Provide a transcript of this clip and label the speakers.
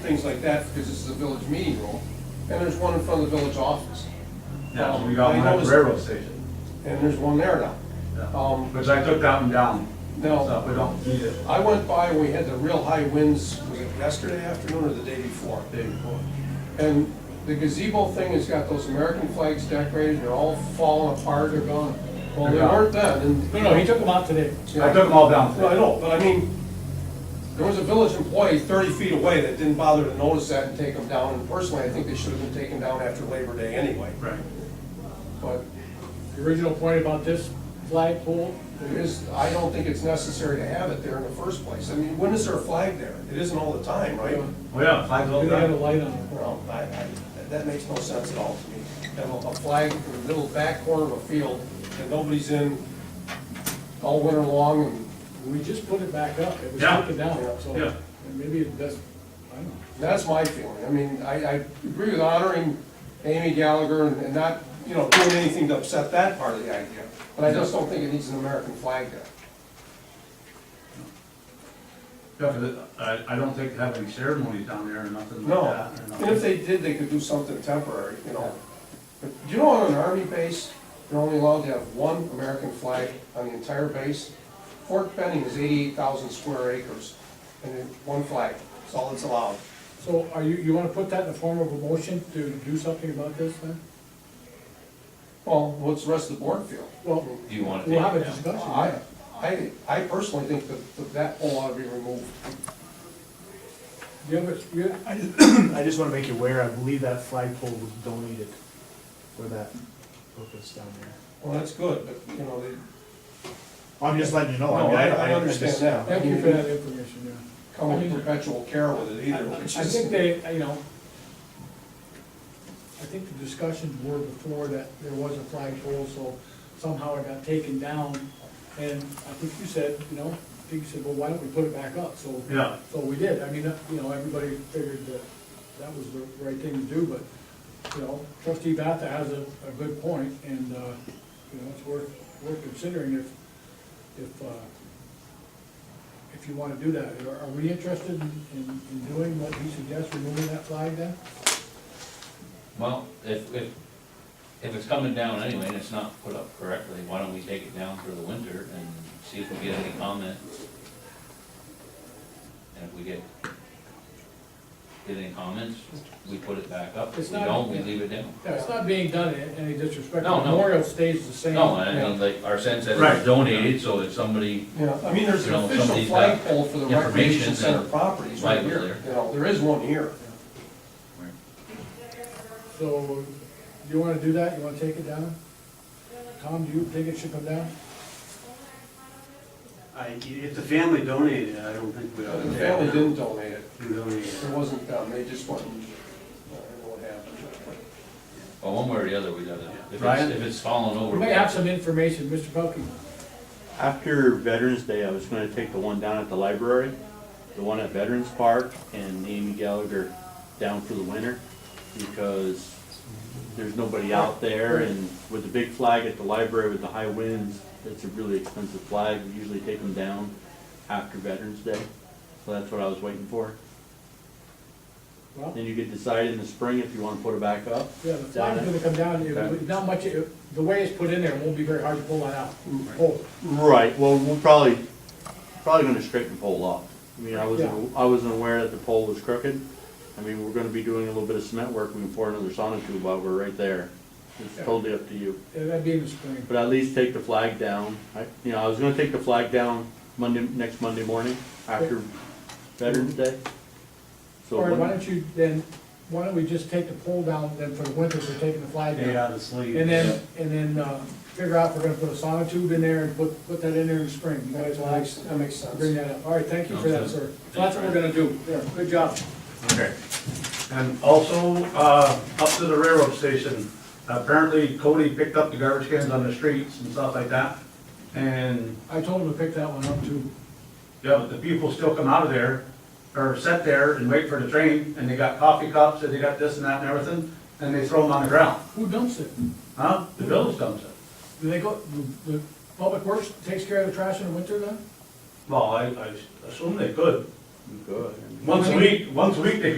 Speaker 1: things like that, because this is a village meeting room, and there's one in front of the village office.
Speaker 2: Yeah, so we
Speaker 1: Um,
Speaker 2: got
Speaker 1: I
Speaker 2: one at the
Speaker 1: noticed-
Speaker 2: railroad station.
Speaker 1: And there's one there now.
Speaker 2: Yeah.
Speaker 1: Um,
Speaker 2: Which I took that one down,
Speaker 1: Now,
Speaker 2: so we don't need it.
Speaker 1: I went by, we had the real high winds, was it yesterday afternoon or the day before? Day before. And the gazebo thing has got those American flags decorated, they're all falling apart, they're gone. Well, they
Speaker 2: They're gone.
Speaker 1: weren't then, and.
Speaker 3: No, no, he took them out today.
Speaker 2: I took them all down.
Speaker 1: No, I know, but I mean, there was a village employee thirty feet away that didn't bother to notice that and take them down, and personally, I think they should have been taken down after Labor Day anyway,
Speaker 2: Right.
Speaker 1: but
Speaker 3: The original point about this flagpole,
Speaker 1: it is, I don't think it's necessary to have it there in the first place. I mean, when is there a flag there? It isn't all the time, right?
Speaker 2: Well, yeah, flags all
Speaker 3: they had a
Speaker 2: down.
Speaker 3: light on it.
Speaker 1: Well, I, I, that- that makes no sense at all to me. Have a a flag in the middle back corner of a field that nobody's in all winter long, and
Speaker 3: We just put it back up, it was
Speaker 2: Yeah.
Speaker 3: taken down, so
Speaker 2: Yeah.
Speaker 3: and maybe it does, I don't know.
Speaker 1: That's my feeling. I mean, I, I agree with honoring Amy Gallagher and and not, you know, doing anything to upset that part of the idea. But I just don't think it needs an American flag there.
Speaker 2: Yeah, 'cause it- I, I don't think they have any ceremonies down there or nothing like
Speaker 1: No.
Speaker 2: that. you know.
Speaker 1: And if they did, they could do something temporary, you know. But you know, on an army base, you're only allowed to have one American flag on the entire base. Fort Benning is eighty-eight thousand square acres, and then one flag, that's all that's allowed.
Speaker 3: So are you, you wanna put that in the form of a motion to do something about this then?
Speaker 1: Well, what's the rest of the board feel?
Speaker 3: Well,
Speaker 4: Do you want to
Speaker 3: we'll
Speaker 4: take
Speaker 3: have
Speaker 4: it
Speaker 3: a
Speaker 4: down?
Speaker 3: discussion,
Speaker 1: I,
Speaker 3: yeah.
Speaker 1: I, I personally think that, that that pole ought to be removed.
Speaker 3: You have a- you have-
Speaker 5: I just, I just wanna make you aware, I believe that flagpole was donated for that purpose down there.
Speaker 1: Well, that's good, but, you know, they,
Speaker 5: I'm just letting you know.
Speaker 1: no,
Speaker 5: mean,
Speaker 1: I, I
Speaker 5: just-
Speaker 1: understand that.
Speaker 3: Thank you for that information, yeah.
Speaker 1: Come with perpetual care with it
Speaker 3: I
Speaker 1: either, which
Speaker 3: I
Speaker 1: is.
Speaker 3: think they, uh, you know, I think the discussions were before that there was a flagpole, so somehow it got taken down. And I think you said, you know, I think you said, well, why don't we put it back up? So,
Speaker 2: Yeah.
Speaker 3: so we did. I mean, uh, you know, everybody figured that that was the right thing to do, but, you know, trustee Bata has a, a good point, and, uh, you know, it's worth, worth considering if, if, uh, if you want to do that. Are are we interested in, in in doing what he suggests, removing that flag then?
Speaker 4: Well, if, if, if it's coming down anyway and it's not put up correctly, why don't we take it down for the winter and see if we get any comment? And if we get, get any comments, we put it back up. If
Speaker 3: It's
Speaker 4: we
Speaker 3: not-
Speaker 4: don't, we leave it down.
Speaker 3: Yeah, it's not being done in any disrespect.
Speaker 4: No, no.
Speaker 3: Memorial stays the same.
Speaker 4: No, I mean, like, our sense that
Speaker 2: Right.
Speaker 4: it's donated, so if somebody,
Speaker 1: Yeah, I mean, there's
Speaker 4: You
Speaker 1: an
Speaker 4: know,
Speaker 1: official
Speaker 4: somebody's got
Speaker 1: flagpole for the
Speaker 4: uh, information
Speaker 1: recreation center
Speaker 4: that-
Speaker 1: properties right
Speaker 4: Right, was
Speaker 1: here. You know, there is one here.
Speaker 3: So, do you want to do that? You want to take it down? Tom, do you think it should come down?
Speaker 6: I, if the family donated, I don't think we ought to.
Speaker 1: The family didn't donate it.
Speaker 6: Donate it.
Speaker 1: It wasn't done. They just went, uh, I don't know what happened.
Speaker 4: well, one way or the other, we gotta, if it's,
Speaker 7: Brian?
Speaker 4: if it's falling over.
Speaker 3: We may have some information, Mr. Pelkey.
Speaker 7: After Veterans Day, I was gonna take the one down at the library, the one at Veterans Park, and Amy Gallagher down for the winter, because there's nobody out there, and with the big flag at the library with the high winds, it's a really expensive flag, we usually take them down after Veterans Day, so that's what I was waiting for.
Speaker 3: Well,
Speaker 7: Then you could decide in the spring if you wanna put it back up.
Speaker 3: yeah, the flag is going to come down. It- Not much, it- the way it's put in there, it won't be very hard to pull that out. Pull.
Speaker 7: Right, well, we'll probably, probably gonna straighten the pole up. I mean, I wasn't, I wasn't aware that the pole was crooked. I mean, we're gonna be doing a little bit of cement work, we can pour another sonotube out, we're right there. It's totally up to you.
Speaker 3: Yeah, That'd be in the spring.
Speaker 7: But at least take the flag down. I, you know, I was gonna take the flag down Monday, next Monday morning after Veterans Day. So,
Speaker 3: All right, why
Speaker 7: when-
Speaker 3: don't you then, why don't we just take the pole down then for the winter for taking the flag down?
Speaker 2: They out of sleep.
Speaker 3: And then, and then, uh, figure out if we're gonna put a sonotube in there and put, put that in there in the spring. You guys
Speaker 1: That
Speaker 3: wanna
Speaker 1: makes, that makes
Speaker 3: bring
Speaker 1: sense.
Speaker 3: that up? All right, thank you for that, sir. So that's what we're gonna do. Yeah, good job.
Speaker 2: Okay. And also, uh, up to the railroad station, apparently Cody picked up the garbage cans on the streets and stuff like that. And,
Speaker 3: I told him to pick that one up too.
Speaker 2: yeah, but the people still come out of there, or sit there and wait for the train, and they got coffee cups, and they got this and that and everything, and they throw them on the ground.
Speaker 3: Who dumps it?
Speaker 2: Huh? The village dumps it.
Speaker 3: Do they go, the, the public works takes care of the trash in the winter then?
Speaker 2: Well, I, I assume they could.
Speaker 7: Go ahead.
Speaker 2: Once a week, once a week they